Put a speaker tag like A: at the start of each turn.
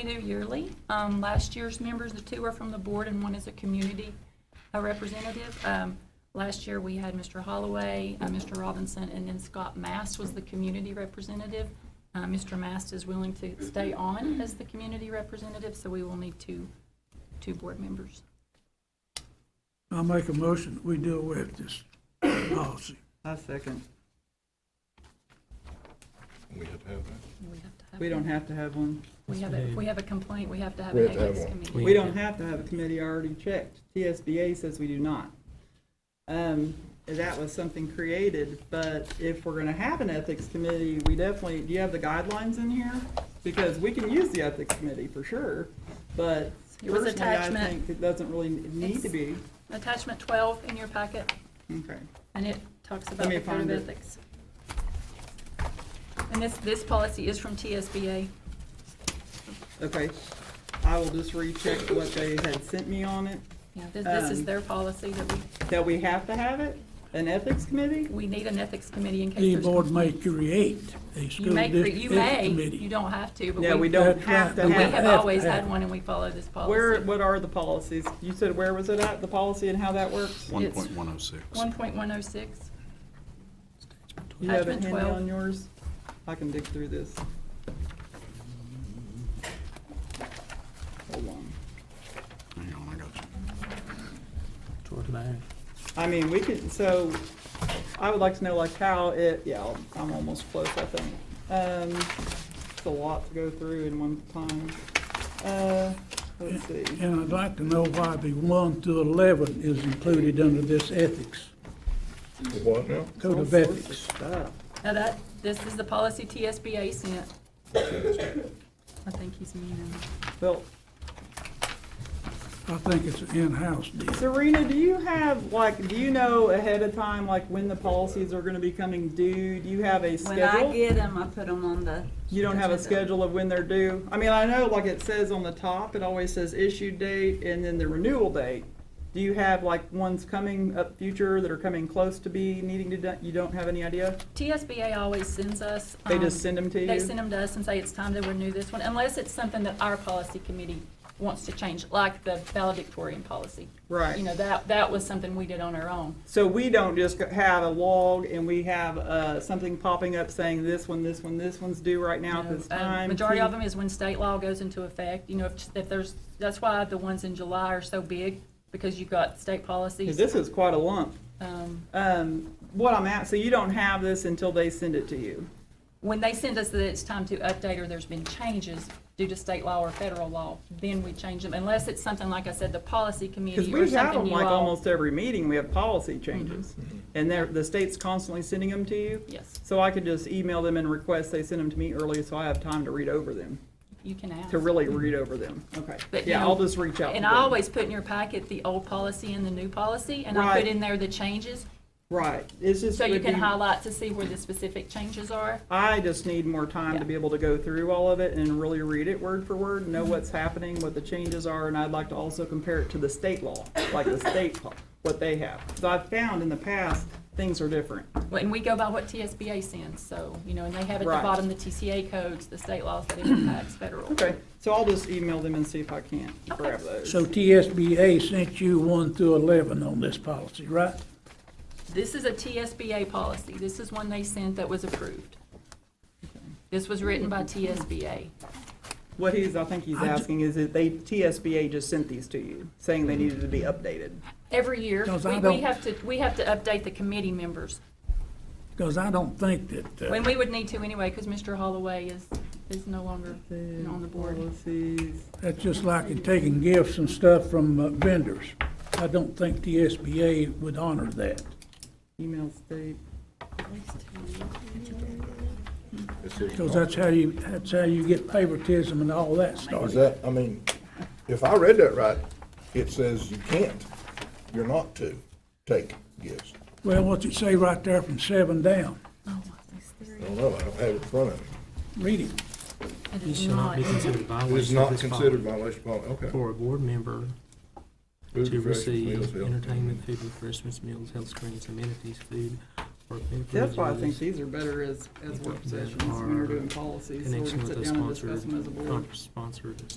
A: We do yearly. Um, Last year's members, the two are from the board and one is a community uh, representative. Um, Last year, we had Mr. Holloway, uh, Mr. Robinson, and then Scott Mast was the community representative. Uh, Mr. Mast is willing to stay on as the community representative, so we will need two, two board members.
B: I'll make a motion, that we deal with this policy.
C: I second.
D: We have to have that.
A: We have to have-
C: We don't have to have one.
A: We have, a- if we have a complaint, we have to have
D: We
A: an
D: have to have
A: ethics
D: one.
A: committee.
C: We don't have to have a committee I already checked. TSBA says we do not. Um, that was something created, but if we're gonna have an ethics committee, we definitely, do you have the guidelines in here? Because we can use the ethics committee for sure, but
A: It was
C: personally, I
A: attachment.
C: think it doesn't really need to be.
A: Attachment 12 in your packet,
C: Okay.
A: and it talks about
C: me
A: the code of
C: find it.
A: ethics. And this, this policy is from TSBA.
C: Okay, I will just recheck what they had sent me on it,
A: Yeah, this, this is
C: Um,
A: their policy that we,
C: that we have to have it, an ethics committee?
A: we need an ethics committee in case
B: The
A: there's.
B: board may create a
A: You
B: school
A: may,
B: district
A: you may,
B: ethics
A: you
B: committee.
A: don't have to, but we.
C: Yeah, we don't
B: That's
C: have
B: right, but
C: to have.
B: we
A: We
C: it.
A: have
B: have
A: always
B: to.
A: had one and we follow this policy.
C: Where, what are the policies? You said where was it at, the policy and how that works?
A: It's
E: 1.106.
A: 1.106?
C: You have it
A: Attachment
C: handy
A: 12.
C: on yours? I can dig through this. Hold on.
E: Hang on, I got you.
F: Toward my,
C: I mean, we could, so, I would like to know like how it, yeah, I'll- I'm almost close, I think. Um, it's a lot to go through in one time. Uh, let's see.
B: And I'd like to know why the one through eleven is included under this ethics,
D: The What now?
B: code
C: All
B: of
C: sorts of
B: ethics.
C: stuff.
A: Now that, this is the policy TSBA sent. I think he's meaning,
C: Well,
B: I think it's an in-house deal.
C: Serena, do you have, like, do you know ahead of time, like, when the policies are gonna be coming due? Do you have a
G: When I
C: schedule?
G: get them, I put them on the,
C: You don't have a schedule of when they're due? I mean, I know, like, it says on the top, it always says issue date and then the renewal date. Do you have, like, ones coming up future that are coming close to be needing to, do- you don't have any idea?
A: TSBA always sends us.
C: They
A: um,
C: just send them to you?
A: They send them to us and say it's time to renew this one, unless it's something that our policy committee wants to change, like the valedictorian policy.
C: Right.
A: You know, that, that was something we did on our own.
C: So we don't just go- have a log and we have, uh, something popping up saying this one, this one, this one's due right now at
A: know,
C: this
A: um,
C: time?
A: Majority of
C: Keith?
A: them is when state law goes into effect, you know, if, if there's, that's why the ones in July are so big, because you've got state
C: 'Cause
A: policies.
C: This is quite a lump.
A: Um,
C: Um, what I'm at, so you don't have this until they send it to you.
A: When they send us that it's time to update or there's been changes due to state law or federal law, then we change them, unless it's something, like I said, the policy
C: Because
A: committee or
C: we have
A: something
C: them
A: you
C: like
A: all. Mm-hmm.
C: almost every meeting, we have policy changes. And they're, the state's constantly sending them to you.
A: Yes,
C: So I could just email them and request they send them to me early so I have time to read over them,
A: you can ask.
C: to really read over them. Okay.
A: Mm-hmm. But, you
C: Yeah,
A: know,
C: I'll just reach out to
A: And I
C: them.
A: always put in your packet the old policy and the new policy, and I
C: Right.
A: put in there the changes,
C: Right, it's just.
A: so you
C: would
A: can
C: be-
A: highlight to see where the specific changes are.
C: I just need more time to be able to go through all of it and really read it word for word, know what's happening, what the changes are, and I'd like to also compare it to the state law, like the state, law, what they have. Because I've found in the past, things are different.
A: Well, And we go by what TSBA sends, so, you know, and they have at the
C: Right.
A: bottom the TCA codes, the state laws that it impacts federal.
C: Okay, so I'll just email them and see if I can't grab those.
B: So TSBA sent you one through eleven on this policy, right?
A: This is a TSBA policy. This is one they sent that was approved. This was written by TSBA.
C: What he's, I think he's asking is that they, TSBA just sent these to you, saying they needed to be updated.
A: Every year,
B: Because I
A: we, we
B: don't-
A: have to, we have to update the committee members.
B: Because I don't think that,
A: When
B: uh,
A: we would need to anyway, because Mr. Holloway is, is no longer on the board.
C: Policies.
B: that's just like taking gifts and stuff from uh, vendors. I don't think TSBA would honor that.
C: Email state.
D: It's just-
B: Because that's how you, that's how you get favoritism and all that
D: Is
B: started.
D: that, I mean, if I read that right, it says you can't, you're not to take gifts.
B: Well, what's it say right there from seven down?
A: Oh,
D: I don't know, I don't have it in front of me.
B: Read it.
A: It
F: this
A: is
F: shall not
A: not,
F: be considered violation.
D: It is
F: of
D: not
F: this
D: considered
F: policy
D: violation of policy, okay.
F: For a board member
D: Food,
F: to
D: refreshments, meals,
F: receive
D: bill.
F: entertainment, food, refreshments, meals, health screenings, amenities, food, or any
C: That's why I think
F: prisoners
C: these are better as, as work
F: That
C: sessions when we're
F: are
C: doing policies, so we
F: Connection
C: can
F: with
C: sit
F: the
C: down and discuss
F: sponsored,
C: them as a board.
F: con- sponsored